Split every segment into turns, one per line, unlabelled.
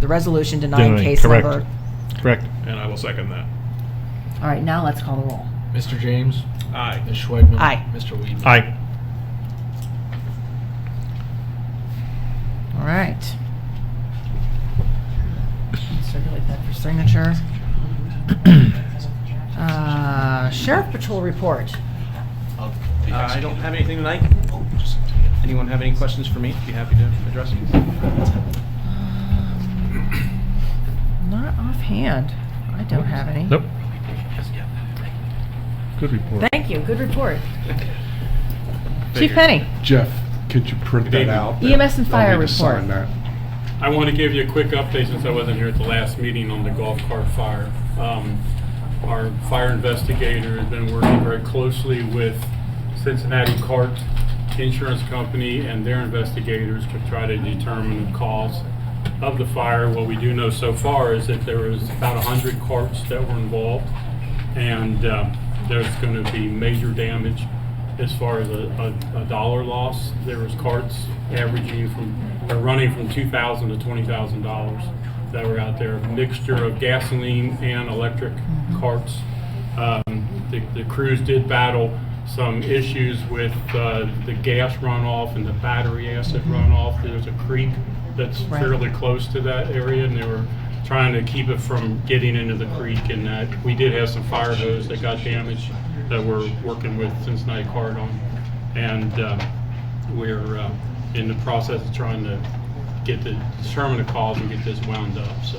the resolution denying
Denying,
case
correct.
number.
Correct.
And I will second that.
All right, now let's call the roll.
Mr. James,
Aye.
Ms. Schwagman.
Aye.
Mr. Weedman.
Aye.
All right. Circulate that for signature. Uh, Sheriff Patrol report.
Uh, I don't have anything tonight. Anyone have any questions for me? Be happy to address them.
Um, Not offhand. I don't have any.
Nope. Good report.
Thank you, good report. Chief Penny,
Jeff, could you print that out?
EMS and
I'll
fire
need to sign
report.
that.
I want to give you a quick update since I wasn't here at the last meeting on the golf cart fire. Um, Our fire investigator has been working very closely with Cincinnati Cart Insurance Company and their investigators to try to determine the cause of the fire. What we do know so far is that there was about 100 carts that were involved, and uh, there's going to be major damage as far as a, a, a dollar loss, there was carts averaging from, or running from two thousand to twenty thousand dollars that were out there, mixture of gasoline and electric carts. Um, the, the crews did battle some issues with, uh, the gas runoff and the battery acid runoff. There's a creek that's
Right.
fairly close to that area, and they were trying to keep it from getting into the creek, and that, we did have some fire hose that got damaged that we're working with Cincinnati Card on. And uh, we're uh, in the process of trying to get the, determine the cause and get this wound up, so.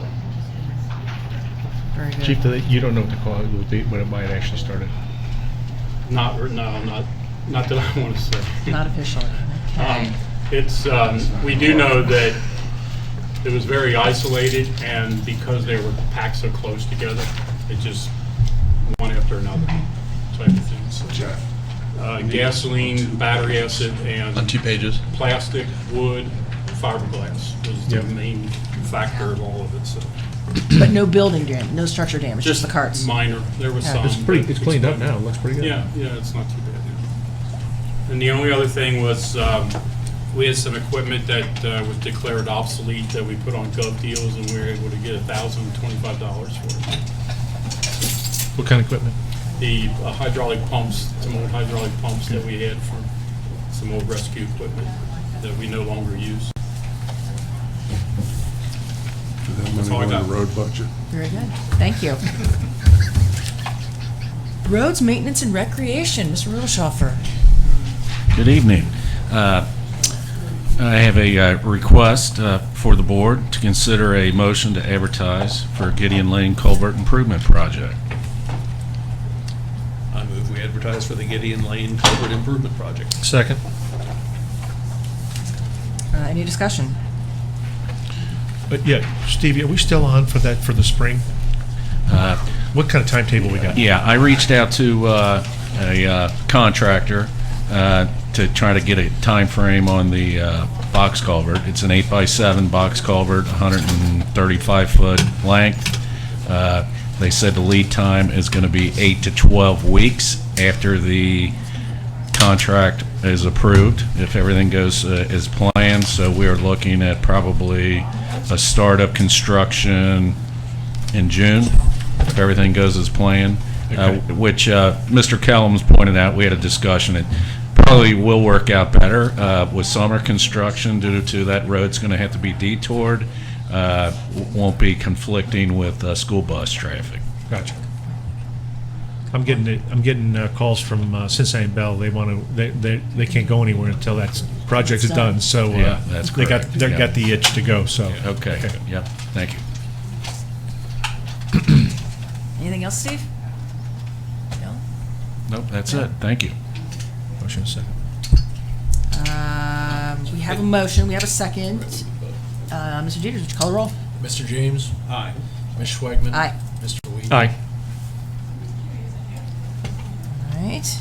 very
Chief,
good.
do they- you don't know what to call it, what date- when it might actually started.
Not, no, not, not that I want to say.
Not officially.
Um,
Okay.
It's, um, we do know that it was very isolated, and because they were packed so close together, it just one after another type of thing. So,
Jeff,
uh, Gasoline, battery acid,
on two
and
pages.
plastic, wood, fiberglass was the
Yep.
main factor of all of it, so.
But no building damage, no structure damage, just the carts.
Minor, there was
Yeah.
some.
It's pretty,
but
it's cleaned up now, it looks pretty good.
yeah, yeah, it's not too bad. yeah. And the only other thing was, um, we had some equipment that uh, was declared obsolete that we put on gov deals and we were able to get a thousand twenty-five dollars for it.
What kind of equipment?
The uh, hydraulic pumps, some old hydraulic pumps that we had from some old rescue equipment that we no longer use.
do that
That's
money
all I
go in
got.
the road budget?
Very good, thank you. Roads, maintenance, and recreation, Mr. Rudolphschaffer.
Good evening. Uh, I have a uh, request uh, for the board to consider a motion to advertise for Gideon Lane Culvert Improvement Project.
I move we advertise for the Gideon Lane Culvert Improvement Project.
Second?
Uh, Any discussion?
But yeah, Stevie, are we still on for that, for the spring?
Uh,
What kind of timetable we got?
Yeah, I reached out to uh, a uh, contractor uh, to try to get a time frame on the uh, box culvert. It's an eight by seven box culvert, 135 foot length. Uh, They said the lead time is going to be eight to 12 weeks after the contract is approved, if everything goes uh, as planned. So we are looking at probably a start of construction in June, if everything goes as planned, uh, which uh, Mr. Kellums pointed out, we had a discussion, it probably will work out better uh, with summer construction due to that road's going to have to be detoured, uh, w- won't be conflicting with uh, school bus traffic.
Gotcha. I'm getting, it- I'm getting uh, calls from uh, Cincinnati Bell, they want to, they, they they can't go anywhere until that project is done, so. uh,
Yeah, that's
They got,
correct,
they
yeah.
got the itch to go, so.
Okay, yep, thank you.
Anything else, Steve? No?
Nope, that's it, thank you.
Motion second.
Um, We have a motion, we have a second. Uh, Mr. Jeters, would you call the roll?
Mr. James,
Aye.
Ms. Schwagman.
Aye.
Mr. Weedman.
Aye.
All right.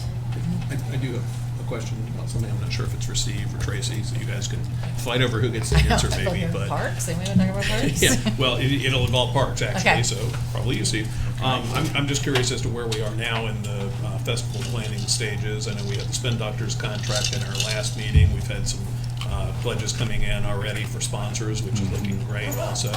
I I do have a question about something, I'm not sure if it's for Steve or Tracy, so you guys can fight over who gets the answer maybe, but.
Parks, they might have talked about parks.
Yeah, well, it, it'll involve parks,
Okay.
actually, so probably you, Steve. Um, I'm, I'm just curious as to where we are now in the uh, festival planning stages. I know we had the Spin Doctors contract in our last meeting. We've had some uh, pledges coming in already for sponsors, which is looking great also.